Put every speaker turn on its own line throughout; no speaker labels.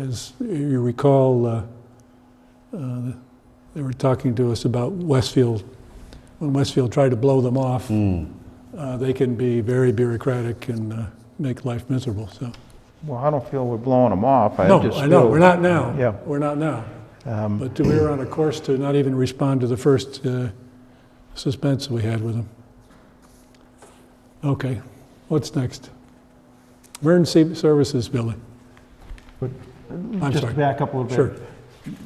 As you recall, uh, uh, they were talking to us about Westfield. When Westfield tried to blow them off,
Hmm.
uh, they can be very bureaucratic and uh, make life miserable, so.
Well, I don't feel we're blowing them off.
No,
just
I know,
feel-
we're not now.
Yeah. um,
We're not now. But we were on a course to not even respond to the first uh, suspense we had with them. Okay, what's next? Emergency services building.
But, uh,
I'm
Just
sorry,
back up a little
sure.
bit.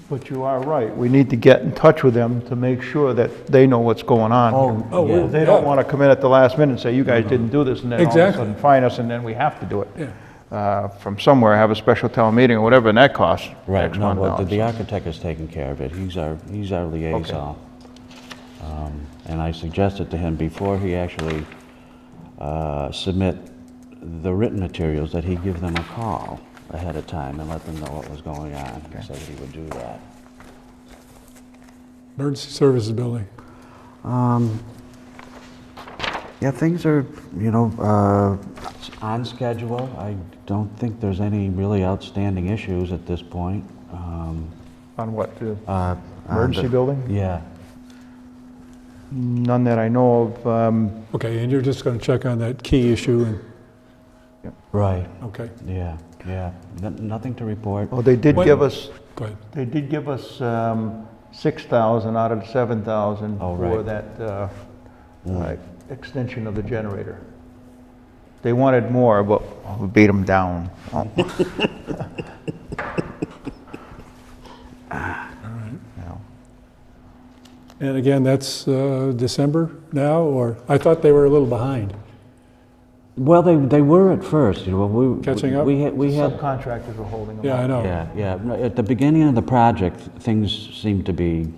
But you are right. We need to get in touch with them to make sure that they know what's going on.
Oh, yeah.
They don't
yeah.
want to come in at the last minute and say, you guys didn't do this, and then all of a
Exactly.
sudden fine us, and then we have to do it.
Yeah.
Uh, From somewhere, have a special town meeting or whatever, and that costs
Right,
X
no,
amount
well,
of
the- the
dollars.
architect is taking care of it, he's our, he's our liaison. Um, And I suggested to him before he actually uh, submit the written materials that he give them a call ahead of time and let them know what was going on, He said he would do that.
Emergency services building.
Um, yeah, things are, you know, uh,
It's on schedule, I don't think there's any really outstanding issues at this point. Um,
On what, the
uh,
emergency building?
Yeah,
None that I know of. um,
Okay, and you're just going to check on that key issue and,
right,
okay,
yeah, yeah, N- nothing to report.
Well, oh, they did
When-
give us,
go ahead.
they did give us um, 6,000 out of the 7,000
Oh,
for
right. Mm.
that uh, uh, extension of the generator. They wanted more, but we beat them down. Oh, yeah.
And again, that's uh, December now, or, I thought they were a little behind.
Well, they, they were at first, you know, we...
Catching up?
We had, we had,
Subcontractors were holding them
Yeah, I
up.
know.
yeah, yeah, No, at the beginning of the project, things seemed to be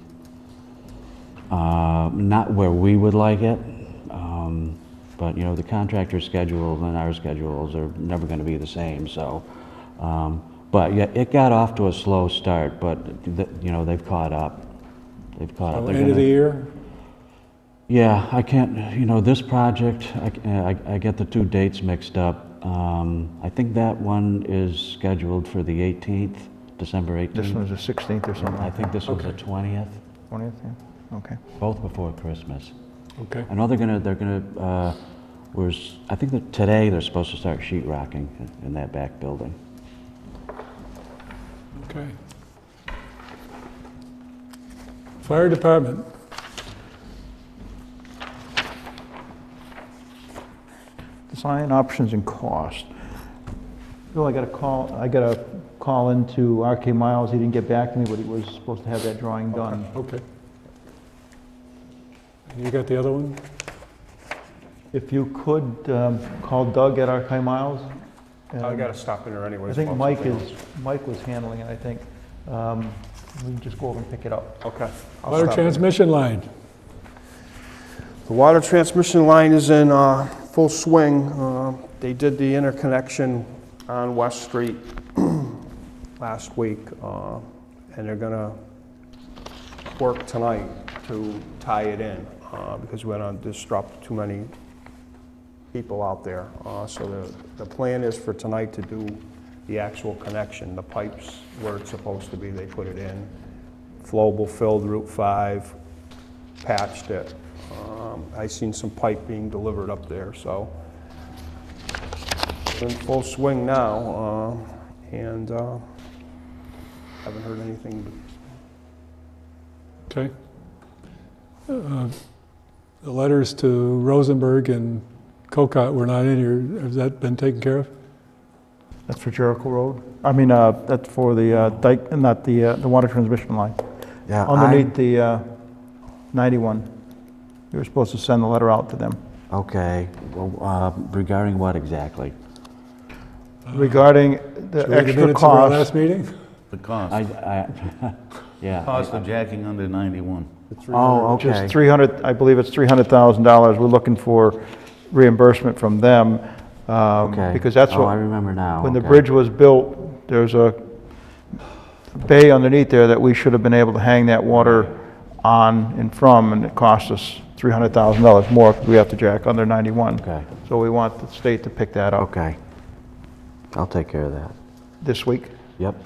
uh, not where we would like it, Um, but, you know, the contractor's schedule and our schedules are never going to be the same, so, um, but, yeah, it got off to a slow start, but, th- you know, they've caught up, they've caught
So
up. They're
End of
gonna-
the year,
Yeah, I can't, you know, this project, I, I- I get the two dates mixed up. Um, I think that one is scheduled for the 18th, December
This
18th.
one's the 16th or something,
I think this was the
Okay.
20th,
20th, yeah, okay.
both before Christmas.
okay.
I know they're gonna, they're gonna, uh, was, I think that today they're supposed to start sheet rocking in- in that back building.
Okay. Fire department.
Design options and cost. Bill, I got a call, I got a call into RK Miles, he didn't get back to me, but he was supposed to have that drawing done.
Okay. You got the other one?
If you could, um, call Doug at RK Miles.
I
Um,
gotta stop in there anyways.
I think
about
Mike
something
is, Mike was handling it, I think. Um, We can just go over and pick it up.
else. Okay. I'll
Water
stop in.
transmission line.
The water transmission line is in uh, full swing. Uh, They did the interconnection on West Street last week, uh, and they're gonna work tonight to tie it in, uh, because we don't disrupt too many people out there. Uh, So the, the plan is for tonight to do the actual connection, the pipes where it's supposed to be, they put it in. Flowable filled Route 5, patched it. Um, I seen some pipe being delivered up there, so it's in full swing now, uh, and uh, haven't heard anything.
Okay. Uh, The letters to Rosenberg and Cocott were not in here. Has that been taken care of?
That's for Jericho Road? I mean, uh, that's for the uh, dike, not the, uh, the water transmission line.
yeah,
Underneath the uh, 91. You were supposed to send the letter out to them.
Okay, well, uh, regarding what exactly?
Regarding the
Should we read
extra
minutes of our
cost,
Last meeting?
I,
The cost,
I, yeah,
cost of jacking under 91.
Oh,
which
okay.
is 300, I believe it's $300,000. We're looking for reimbursement from them. um,
okay.
Because that's
Oh, I
what,
remember now.
when the
okay.
bridge was built, there's a bay underneath there that we should have been able to hang that water on and from, and it cost us $300,000 more if we have to jack under 91.
Okay.
So we want the state to pick that up
Okay. I'll take care of that.
this week.
Yep.